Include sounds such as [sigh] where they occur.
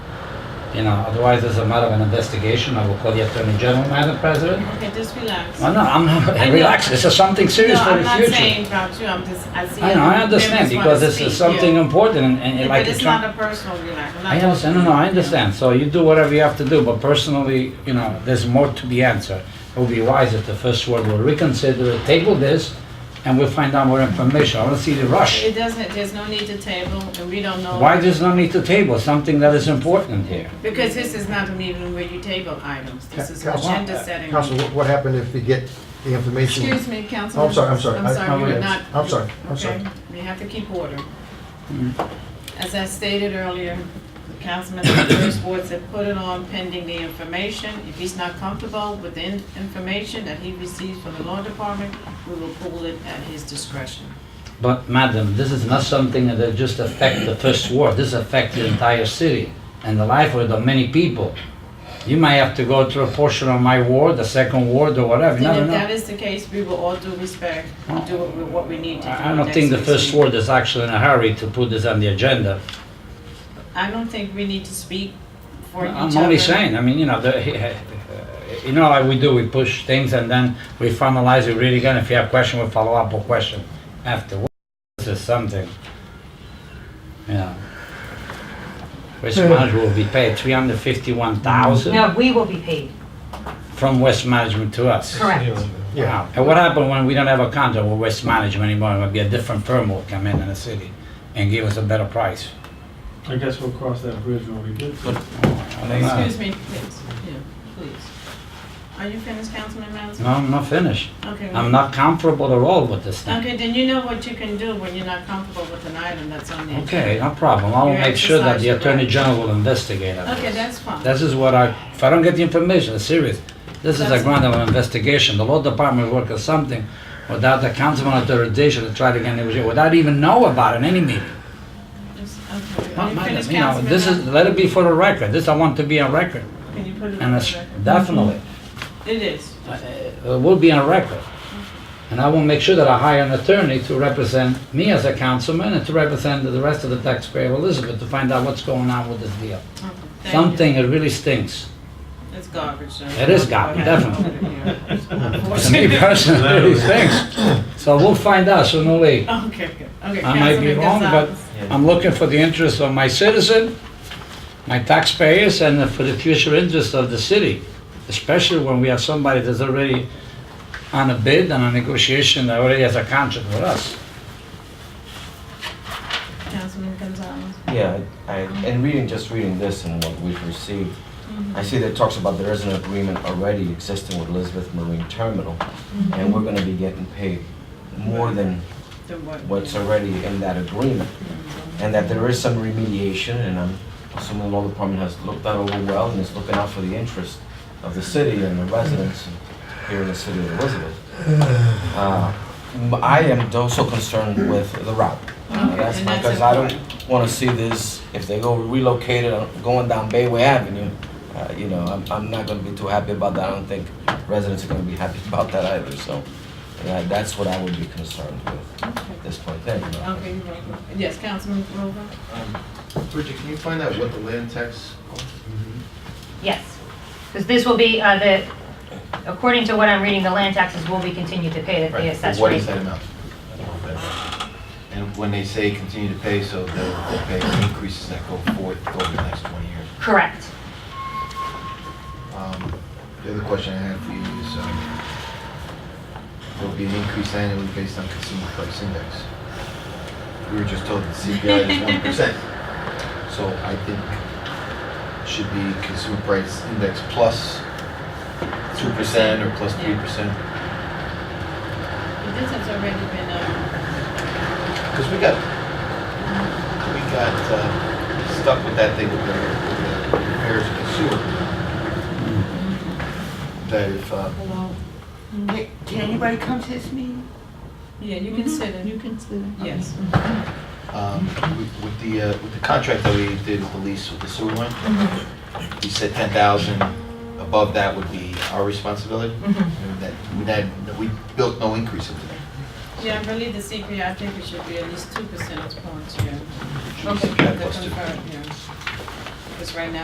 You know, otherwise it's a matter of an investigation. I will call the Attorney General, Madam President. Okay, just relax. Well, no, I'm I not, [laughs] know. relax, this is something serious no, for I'm the not saying future. about you. I'm just I see. I know, I understand, members wanna because this speak, is something Yeah. important and- Yeah, and but like you it's try. not a personal relax. I'm not I understand, no, no, I understand. So you do whatever you have to do, but personally, you know, there's more to be answered. It would be wise if the first word will reconsider, it, table this, and we'll find out more information. I don't see the rush. It doesn't. There's no need to table, and we don't know Why does not need to table something that is important here? because this is not a meeting where you table items. This is Council- uh, agenda setting. Council, what- what happened if we get the information? Excuse me, Councilman. Oh, I'm sorry, I'm sorry. I'm I- sorry, I'm we're sorry. not. I'm sorry, I'm Okay, sorry. we have to keep order. Mm. As I stated earlier, the councilman of the first ward said put it on pending the information. If he's not comfortable with the in- information that he receives from the law department, we will pull it at his discretion. But madam, this is not something that just affect the first ward. This affects the entire city and the livelihood of many people. You might have to go through a portion of my ward, the second ward or whatever. And No, no, if no. that is the case, we will all due respect, do what we- what we need to do. I I don't next think the week's first meeting. ward is actually in a hurry to put this on the agenda. I don't think we need to speak for each other. I'm only saying, I mean, you know, the, you know, like we do, we push things and then we finalize it really good. If you have question, we follow up with question afterwards. This is something, you know. West Management will be paid three hundred fifty-one thousand No, we will be paid, from West Management to us. correct. Yeah, Wow. And what happened when we don't have a contract with West Management anymore? It would be a different firm will come in in the city and give us a better price. I guess we'll cross that bridge when we get to it. I don't know. Excuse me, please, yeah, please. Are you finished, Councilman Mazza? No, I'm not finished. Okay. I'm not comfortable at all with this thing. Okay, then you know what you can do when you're not comfortable with an item that's on the. Okay, no problem. I will Your make sure that the exercise, Attorney right. General will investigate it. Okay, that's fine. This is what I, if I don't get the information, it's serious. This is a That's- ground of investigation. The law department work on something without the councilman authorization to try to get negotiation, without even know about it in any meeting. Just- Okay, are Ma- you Madam, finished, you know, Councilman? uh, this is, let it be for the record. This I want to be on record. Can you put it on And the it's record? definitely, It is. uh, it will be on record. Mm-hmm. And I will make sure that I hire an attorney to represent me as a councilman and to represent the rest of the taxpayer of Elizabeth to find out what's going on with this deal. Okay, thank you. Something that really [laughs] stinks. It's garbage. so- It is garbage, [laughs] definitely. To me personally, it really [laughs] stinks. So we'll find out sooner or later. Okay, good. okay. I might be Councilman wrong, but Gonzalez. I'm looking for the interest of my citizen, my taxpayers, and for the future interest of the city. Especially when we have somebody that's already on a bid and a negotiation that already has a contract with us. Councilman Gonzalez. Yeah, I, and reading, just reading this and what we've received, I see that it talks about there is an agreement already existing with Elizabeth Marine Terminal, and we're gonna be getting paid more than The what? what's already in that agreement. And that there is some remediation, and I'm assuming the law department has looked that over well and is looking out for the interest of the city and the residents here in the city of Elizabeth. Uh, m- I am also concerned with the route. Okay, That's and that's because I don't important. want to see this, if they go relocate it, uh, going down Bayway Avenue, uh, you know, I'm, I'm not going to be too happy about that. I don't think residents are going to be happy [laughs] about that either, so yeah, that's what I would be concerned with Okay. at this point. Thank you. Madam. Okay, you're welcome. Yes, Councilman Grover? Bridget, can you find out what the land tax? Yes, because this will be, uh, the, according to what I'm reading, the land taxes will be continued to pay, that the assessed What rate. is that amount? And when they say continue to pay, so they'll they'll pay increases that go forward over the next 20 years. Correct. Um, The other question I had for you is, um, there'll be an increase annually based on consumer price index. We were just told that CPI is 1%. So I think it should be consumer price index plus 2% or plus 3%. But This has already been, um, Because we got, we got uh, stuck with that thing with the with the repairs of the sewer. That if, uh, Can anybody come to this meeting? yeah, you can sit in. You can sit Yes. um, with- with the, uh, with the contract that we did with the lease with the sewer line, we said ten thousand, above that would be our responsibility. And That, that, we built no increase into that. Yeah, I believe the CPI, I think it should be at least two percentage points, yeah. It should be CPI plus two. Because right now,